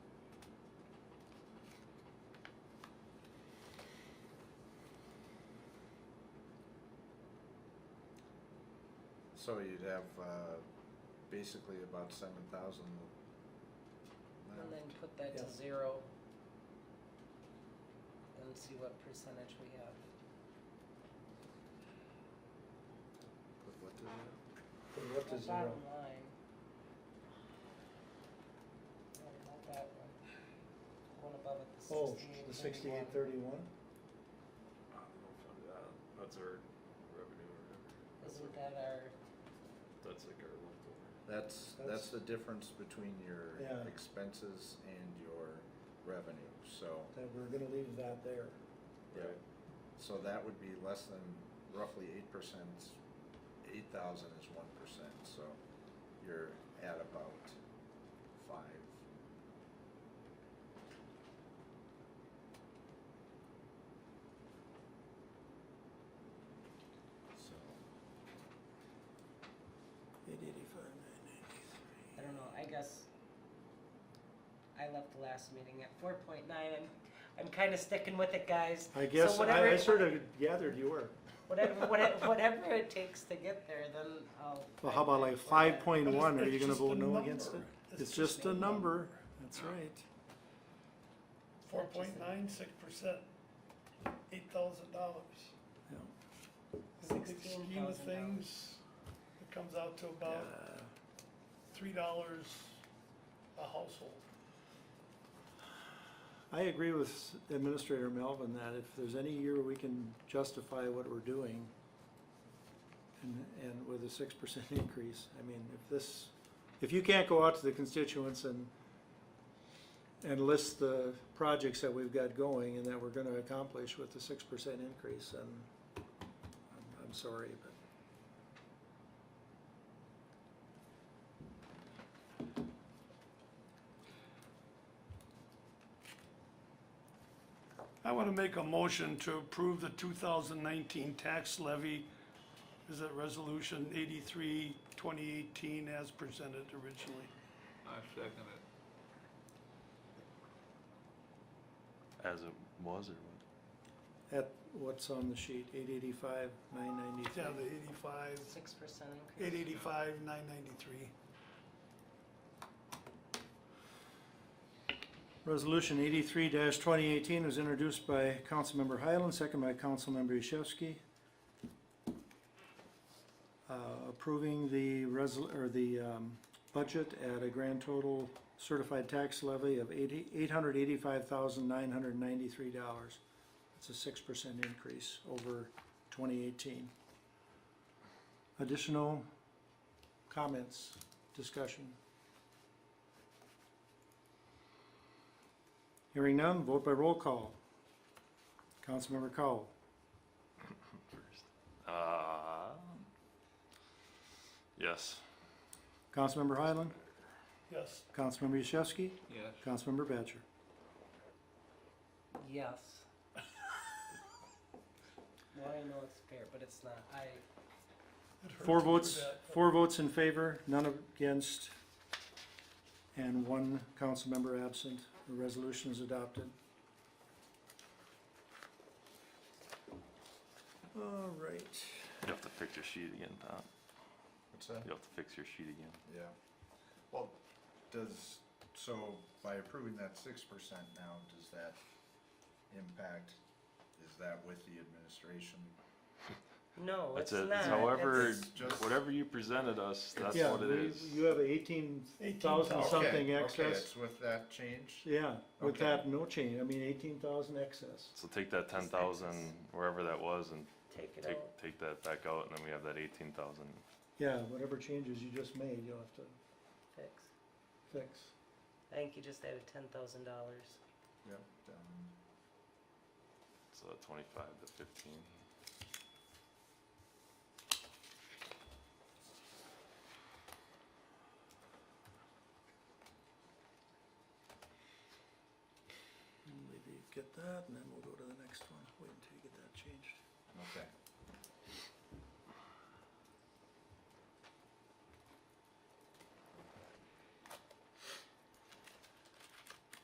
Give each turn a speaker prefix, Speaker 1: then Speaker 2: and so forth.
Speaker 1: So you'd have, uh, basically about seven thousand
Speaker 2: And then
Speaker 1: left.
Speaker 2: put that to
Speaker 3: Yeah.
Speaker 2: zero. And see what percentage we have.
Speaker 1: Put what to zero?
Speaker 3: Put it up to
Speaker 2: Our
Speaker 3: zero.
Speaker 2: Bottom line. What about that one? One above it, the
Speaker 3: Oh,
Speaker 2: sixty-eight
Speaker 3: the
Speaker 2: thirty-one.
Speaker 3: sixty-eight thirty-one?
Speaker 4: I don't know if I'm- uh, That's our revenue or whatever. That's
Speaker 2: Isn't
Speaker 4: our-
Speaker 2: that our,
Speaker 4: That's like our leftover.
Speaker 1: That's, that's
Speaker 3: That's-
Speaker 1: the difference between your
Speaker 3: Yeah.
Speaker 1: expenses and your revenue, so,
Speaker 3: That we're gonna leave that there.
Speaker 1: yeah.
Speaker 4: Right.
Speaker 1: So that would be less than roughly eight percent, eight thousand is one percent, so you're at about five. So,
Speaker 3: Eight eighty-five, nine ninety-three.
Speaker 2: I don't know, I guess I left the last meeting at four point nine. I'm, I'm kinda sticking with it, guys.
Speaker 3: I
Speaker 2: So
Speaker 3: guess,
Speaker 2: whatever-
Speaker 3: I, I sort of gathered you were.
Speaker 2: Whatever, whatever, whatever it takes to get there, then I'll.
Speaker 3: Well, how about like five point one, are you gonna
Speaker 5: It's just
Speaker 3: vote
Speaker 5: a
Speaker 3: no
Speaker 5: number.
Speaker 3: against it? It's just a number, that's right.
Speaker 5: Four point nine six percent, eight thousand dollars.
Speaker 3: Yeah.
Speaker 5: In the big
Speaker 2: Sixteen
Speaker 5: scheme of
Speaker 2: thousand
Speaker 5: things, it comes out to about
Speaker 3: Uh,
Speaker 5: three dollars a household.
Speaker 3: I agree with Administrator Melvin that if there's any year we can justify what we're doing and, and with a six percent increase, I mean, if this, if you can't go out to the constituents and and list the projects that we've got going and that we're gonna accomplish with the six percent increase, then I'm, I'm sorry, but
Speaker 5: I wanna make a motion to approve the two thousand nineteen tax levy. Is it resolution eighty-three, twenty eighteen as presented originally?
Speaker 6: I second it.
Speaker 4: As it was or what?
Speaker 3: at what's on the sheet, eight eighty-five, nine ninety-three.
Speaker 5: Yeah, the eighty-five,
Speaker 2: Six percent increase.
Speaker 5: eight eighty-five, nine ninety-three.
Speaker 3: Resolution eighty-three twenty eighteen was introduced by Councilmember Highland, second by Councilmember Yashewski. Uh, approving the resol, or the, um, budget at a grand total certified tax levy of eighty, eight hundred eighty-five thousand nine hundred ninety-three dollars. It's a six percent increase over twenty eighteen. Additional comments, discussion? Hearing none, vote by roll call. Councilmember Cowell,
Speaker 4: First. Uh, yes.
Speaker 3: Councilmember Highland,
Speaker 5: Yes.
Speaker 3: Councilmember Yashewski,
Speaker 6: Yes.
Speaker 3: Councilmember Batchor.
Speaker 2: Yes. Well, I know it's fair, but it's not, I,
Speaker 5: It hurt
Speaker 3: Four
Speaker 5: to do
Speaker 3: votes,
Speaker 5: that.
Speaker 3: four votes in favor, none against, and one councilmember absent. The resolution is adopted. All right.
Speaker 4: You have to fix your sheet again, Tom.
Speaker 1: what's that?
Speaker 4: You have to fix your sheet again.
Speaker 1: Yeah. Well, does, so by approving that six percent now, does that impact, is that with the administration?
Speaker 2: no, it's
Speaker 4: That's
Speaker 2: not.
Speaker 4: it. However,
Speaker 2: It's-
Speaker 1: just-
Speaker 4: whatever you presented us, that's
Speaker 3: Yeah,
Speaker 4: what it
Speaker 3: we-
Speaker 4: is.
Speaker 3: You have eighteen thousand
Speaker 5: 18,000.
Speaker 3: something
Speaker 1: Okay, Okay,
Speaker 3: excess.
Speaker 1: it's with that change?
Speaker 3: Yeah, with
Speaker 1: Okay.
Speaker 3: that, no change. I mean, eighteen thousand excess.
Speaker 4: So take that ten thousand, wherever that was, and
Speaker 2: Take it
Speaker 4: take,
Speaker 2: out.
Speaker 4: take that back out, and then we have that eighteen thousand.
Speaker 3: Yeah, whatever changes you just made, you'll have to
Speaker 2: Fix.
Speaker 3: fix.
Speaker 2: I think you just added ten thousand dollars.
Speaker 1: Yep. um,
Speaker 4: So twenty-five to fifteen.
Speaker 3: And Maybe get that, and then we'll go to the next one, wait until you get that changed.
Speaker 1: Okay,